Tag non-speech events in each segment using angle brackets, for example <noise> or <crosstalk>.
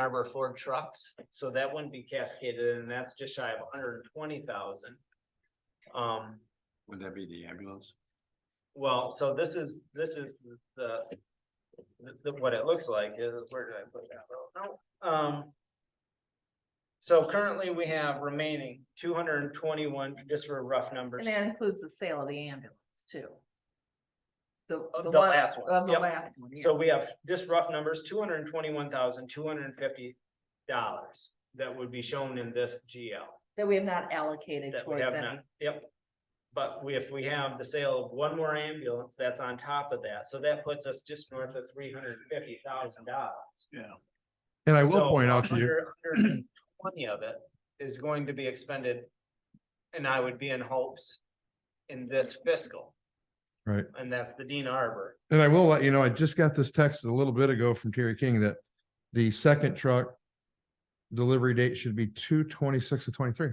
Harbor Ford trucks, so that wouldn't be cascaded, and that's just shy of hundred and twenty thousand. Um, Would that be the ambulance? well, so this is, this is the, the, the- what it looks like, is- where did I put that? Oh, no. Um. So currently we have remaining two hundred and twenty-one, just for rough numbers. And that includes the sale of the ambulance too. The, Of the the one, last one, of the yep. last one. So yes. we have just rough numbers, two hundred and twenty-one thousand, two hundred and fifty dollars that would be shown in this GL. That we have not allocated that we towards have any, not, yep. But we, if we have the sale of one more ambulance, that's on top of that, so that puts us just north of three hundred and fifty thousand dollars. And I will uh, point out to you, Twenty of it is going to be expended, and I would be in hopes in this fiscal. Right. And that's the Dean Arbor, and I will let you know, I just got this text a little bit ago from Terry King that the second truck delivery date should be two twenty-six to twenty-three.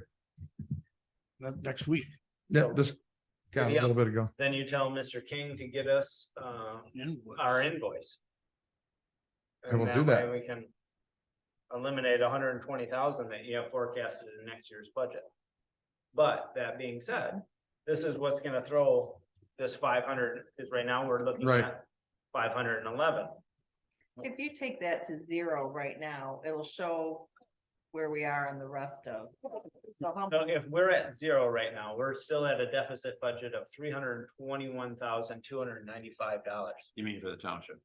ne- next week. Yeah, So- just got it a Yeah. little bit ago. then you tell Mr. King to get us, uh, Inwood. our invoice. I will And do way that. We can eliminate hundred and twenty thousand that you have forecasted in next year's budget. But that being said, this is what's gonna throw this five hundred, is right now we're looking Right. at five hundred and eleven. if you take that to zero right now, it'll show where we are on the rest of. So how, So if we're at zero right now, we're still at a deficit budget of three hundred and twenty-one thousand, two hundred and ninety-five dollars You mean for the township,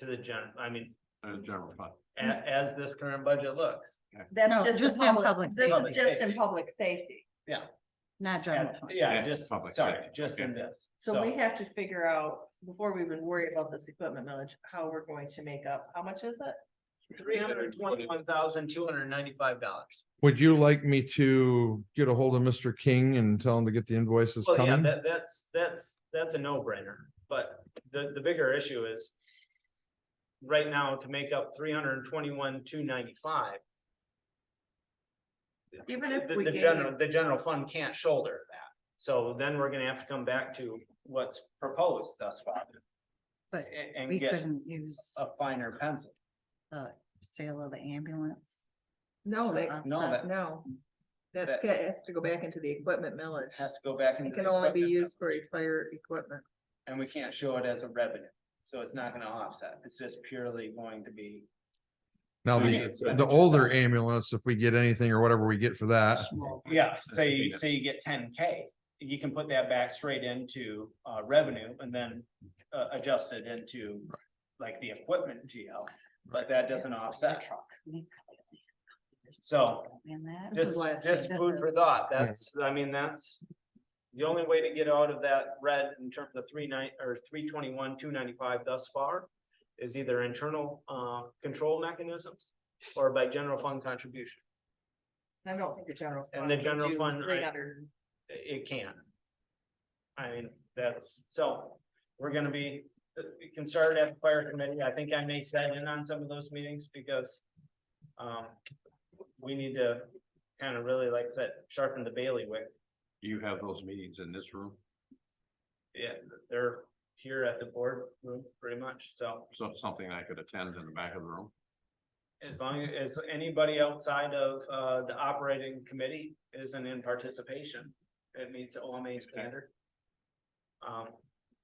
to the gen, I mean, uh, Mm-hmm. general fund? a- as this current budget looks. No, that's just. just in public This is safety. just in public safety. Not And- general fund. Yeah, Yeah, just, public sorry, safety, just in okay. this. So we have to figure out, before we even worry about this equipment millage, how we're going to make up, how much is it? Three hundred and twenty-one thousand, two hundred and ninety-five dollars. Would you like me to get a hold of Mr. King and tell him to get the invoices Well, yeah, coming? that, that's, that's, that's a no-brainer, but the, the bigger issue is right now to make up three hundred and twenty-one, two ninety-five, Even if the, we the gave, general, the general fund can't shoulder that. So then we're gonna have to come back to what's proposed thus far. But a- We And get couldn't use a finer pencil. the sale of the ambulance. no, they, No, that no. That's, Uh-huh. That- got- has to go back into the equipment millage. has to go back into. It can the only be equipment. used for e- fire equipment. and we can't show it as a revenue. So it's not gonna offset. It's just purely going to be. <laughs> Now, Yeah, the, it's- the older ambulance, if we get anything or whatever we get for that, Yeah, That's say, the you- say you get ten K, you can put that back straight into uh revenue and then uh adjust it into. Like the equipment GL, but that doesn't offset. So And that. just, just food for thought. That's, I mean, that's. The only way to get out of that red in terms of three nine, or three twenty-one, two ninety-five thus far. Is either internal uh control mechanisms or by general fund contribution. I don't think the general. And the fund would general do fund, I- 300. it it can. I mean, that's, so, we're gonna be, we can start at the fire committee, I think I may set in on some of those meetings because. Um, we need to kind of really like set, sharpen the bailiwick, You have those meetings in this room, yeah, they're here at the board room pretty much, so. so something I could attend in the back of the room. As long as anybody outside of, uh, the operating committee isn't in participation, it meets OMA standard. Um,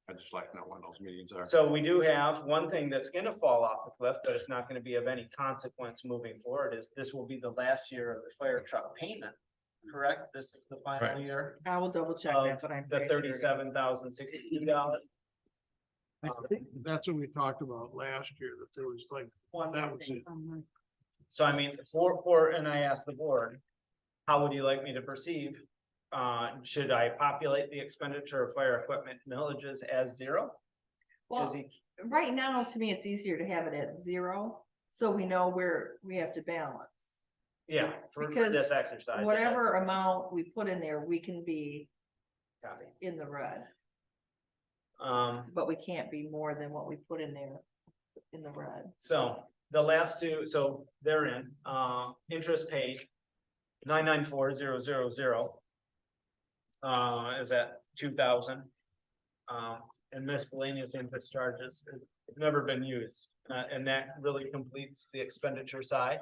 I just like to know when those meetings are. So we do have one thing that's gonna fall off the cliff, but it's not gonna be of any consequence moving forward, is this will be the last year of the fire truck payment. Correct? This is the final year, I will double check Of that, but I'm. the pretty sure it is. thirty-seven thousand sixty-two dollars. I think uh, That's what we talked about last year, that there was like, that was it. So I mean, for, for, and I asked the board, how would you like me to perceive? Uh, should I populate the expenditure of fire equipment millages as zero? Does Well, he- right now, to me, it's easier to have it at zero, so we know where we have to balance. Yeah, for for because this exercise. Whatever amount we put in there, we can be that's- copy. in the red, Um. but we can't be more than what we put in there in the red. So the last two, so they're in, uh, interest paid. Nine nine four zero zero zero. Uh, is at two thousand. Um, and miscellaneous interest charges never been used, uh, and that really completes the expenditure side.